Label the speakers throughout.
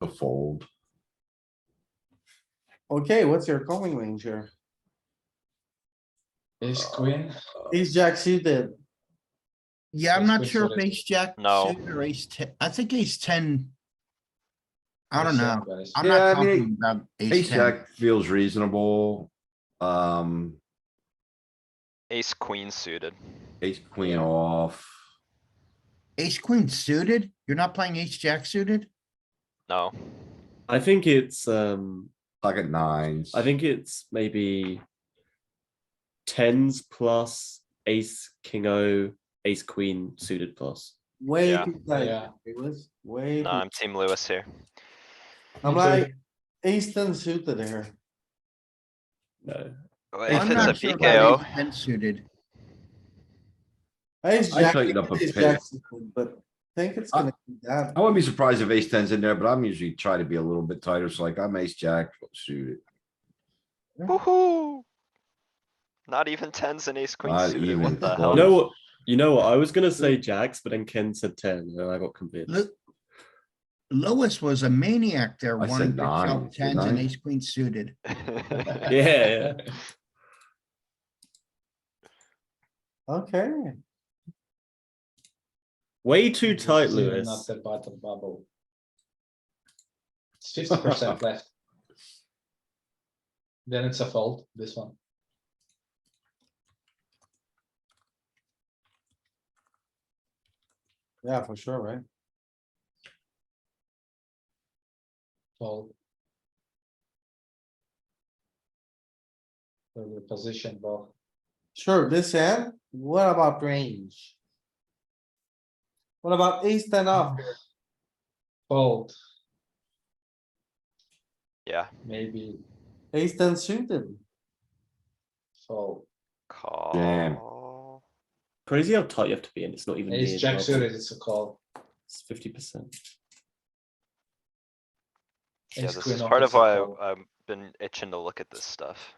Speaker 1: the fold.
Speaker 2: Okay, what's your calling range here?
Speaker 3: Ace
Speaker 4: Oh,
Speaker 3: queen,
Speaker 2: Ace jack suited,
Speaker 4: Yeah, I'm
Speaker 3: Ace
Speaker 4: not
Speaker 3: queen
Speaker 4: sure if
Speaker 3: suited.
Speaker 4: ace jack.
Speaker 5: No.
Speaker 4: suited Or ace ten, I think ace ten. I don't know. I'm
Speaker 1: Yeah,
Speaker 4: not
Speaker 1: I mean,
Speaker 4: confident about ace
Speaker 1: Ace
Speaker 4: ten.
Speaker 1: jack feels reasonable. Um,
Speaker 5: Ace queen suited.
Speaker 1: ace queen off.
Speaker 4: Ace queen suited? You're not playing ace jack suited?
Speaker 5: No.
Speaker 6: I think it's um
Speaker 1: Pocket nines.
Speaker 6: I think it's maybe tens plus ace king o ace queen suited plus.
Speaker 2: way
Speaker 5: Yeah.
Speaker 2: too tight.
Speaker 3: Yeah.
Speaker 2: It was way,
Speaker 5: No,
Speaker 2: too-
Speaker 5: I'm Team Lewis here.
Speaker 2: I'm
Speaker 3: too.
Speaker 2: like, ace ten suited here.
Speaker 6: No,
Speaker 5: If
Speaker 4: I'm
Speaker 5: it's a
Speaker 4: not sure about
Speaker 5: PKO,
Speaker 4: ace Ten suited.
Speaker 2: Ace
Speaker 1: I
Speaker 2: jack,
Speaker 1: tightened up a Uh,
Speaker 2: ace
Speaker 1: pin.
Speaker 2: jack suited, but I think it's gonna be that.
Speaker 1: I wouldn't be surprised if ace tens in there, but I'm usually try to be a little bit tighter. So like I'm ace jack suited.
Speaker 5: woohoo! Not even tens and ace queen
Speaker 1: Not
Speaker 5: suited,
Speaker 1: even
Speaker 5: what the
Speaker 6: you
Speaker 5: hell?
Speaker 6: know
Speaker 1: close.
Speaker 6: what? You know what? I was gonna say jacks, but then Ken said ten, and I got convinced.
Speaker 4: Look. Lewis was a maniac there,
Speaker 1: I said
Speaker 4: wanting to
Speaker 1: nine,
Speaker 4: shove
Speaker 1: didn't
Speaker 4: tens and
Speaker 1: I?
Speaker 4: ace queen suited.
Speaker 6: Yeah, yeah.
Speaker 2: Okay,
Speaker 6: Way too tight,
Speaker 3: Not
Speaker 6: Lewis.
Speaker 3: the bottom bubble. It's fifty percent left. Then it's a fold, this one.
Speaker 2: yeah, for sure, right?
Speaker 3: Fold. So the position ball.
Speaker 2: Sure, this end, what about range? What about ace ten
Speaker 4: Ah.
Speaker 2: off? here?
Speaker 3: Fold,
Speaker 5: Yeah,
Speaker 3: maybe
Speaker 2: Ace ten suited,
Speaker 3: fold.
Speaker 5: call.
Speaker 6: Crazy how tight you have to be, and it's not even
Speaker 3: Ace jack suited is a call.
Speaker 6: fifty percent.
Speaker 5: Yeah,
Speaker 3: Ace
Speaker 5: this
Speaker 3: queen
Speaker 5: is
Speaker 3: off
Speaker 5: part
Speaker 3: is
Speaker 5: of
Speaker 3: a
Speaker 5: why
Speaker 3: call.
Speaker 5: I've been itching to look at this stuff.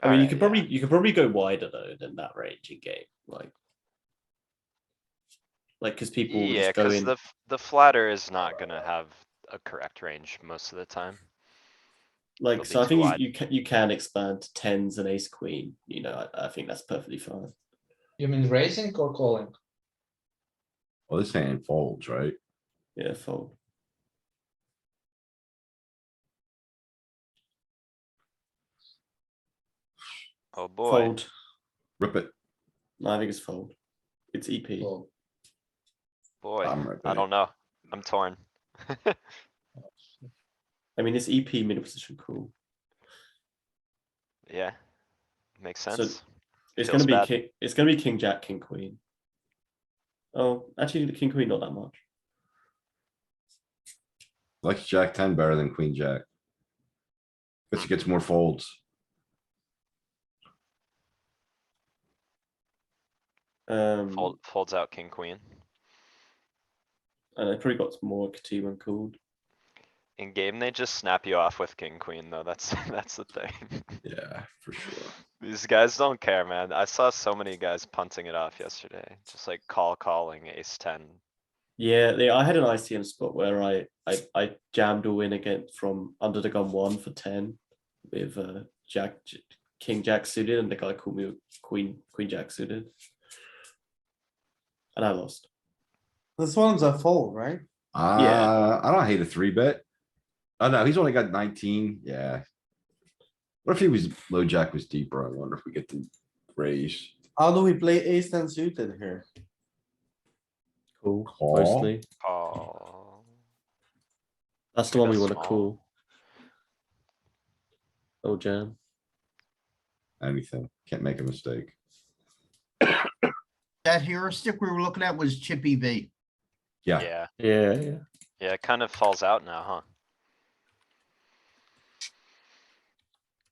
Speaker 6: I mean, you
Speaker 5: Alright,
Speaker 6: could
Speaker 5: yeah.
Speaker 6: probably you could probably go wider though than that range in game, like, like because people will
Speaker 5: Yeah,
Speaker 6: just go
Speaker 5: cuz
Speaker 6: in.
Speaker 5: the, f- the flatter is not gonna have a correct range most of the time.
Speaker 6: Like,
Speaker 5: It'll
Speaker 6: so
Speaker 5: be
Speaker 6: I think
Speaker 5: wide.
Speaker 6: you, you can you can expand to tens and ace queen. You know, I, I think that's perfectly fine.
Speaker 3: You mean raising or calling?
Speaker 1: Well, this hand folds, right?
Speaker 6: Yeah, fold.
Speaker 5: Oh boy,
Speaker 6: Fold.
Speaker 1: Rip it.
Speaker 6: No, I think it's fold. It's E EP.
Speaker 3: Fold.
Speaker 5: boy,
Speaker 6: Um,
Speaker 1: I'm ripping
Speaker 5: I
Speaker 1: it.
Speaker 5: don't know. I'm torn.
Speaker 6: I mean, it's EP middle position call.
Speaker 5: Yeah. Makes
Speaker 6: So-
Speaker 5: sense.
Speaker 6: It's
Speaker 5: Feels
Speaker 6: gonna be
Speaker 5: bad.
Speaker 6: king. It's gonna be king jack king queen. Oh, actually, the king queen not that much.
Speaker 1: Like jack ten better than queen jack. But it gets more folds.
Speaker 6: Um,
Speaker 5: Fold, folds out king, queen.
Speaker 6: and I probably got more KT when called.
Speaker 5: In game, they just snap you off with king, queen, though. That's, that's the thing.
Speaker 1: Yeah, for sure.
Speaker 5: These guys don't care, man. I saw so many guys punting it off yesterday. Just like call calling ace ten.
Speaker 6: Yeah, they, I had an ICM spot where I, I I jammed all in again from under the gun one for ten with uh, Jack J- King Jack suited, and the guy called me with Queen Queen Jack suited, and I lost.
Speaker 2: this one's a fold, right?
Speaker 1: Uh, I don't hate a three bet. Oh no, he's only got nineteen, yeah. What if he was, low jack was deeper? I wonder if we get to raise.
Speaker 2: How do we play ace ten suited here?
Speaker 6: Cool,
Speaker 1: Call.
Speaker 6: mostly.
Speaker 5: Call.
Speaker 6: That's the one we
Speaker 5: That's
Speaker 6: want to
Speaker 5: small.
Speaker 6: call. Oh jam.
Speaker 1: Anything, can't make a mistake.
Speaker 4: That heuristic we were looking at was chippy V.
Speaker 1: Yeah.
Speaker 5: Yeah,
Speaker 6: Yeah, yeah.
Speaker 5: yeah, it kind of falls out now, huh?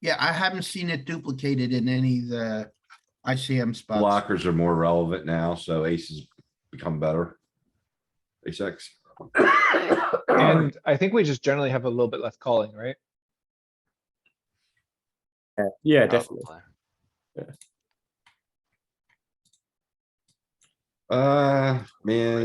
Speaker 4: Yeah, I haven't seen it duplicated in any of the ICM spots.
Speaker 1: Blockers are more relevant now, so aces become better. Ace X.
Speaker 7: And I think we just generally have a little bit less calling, right?
Speaker 6: Yeah,
Speaker 5: Probably.
Speaker 1: Uh, man,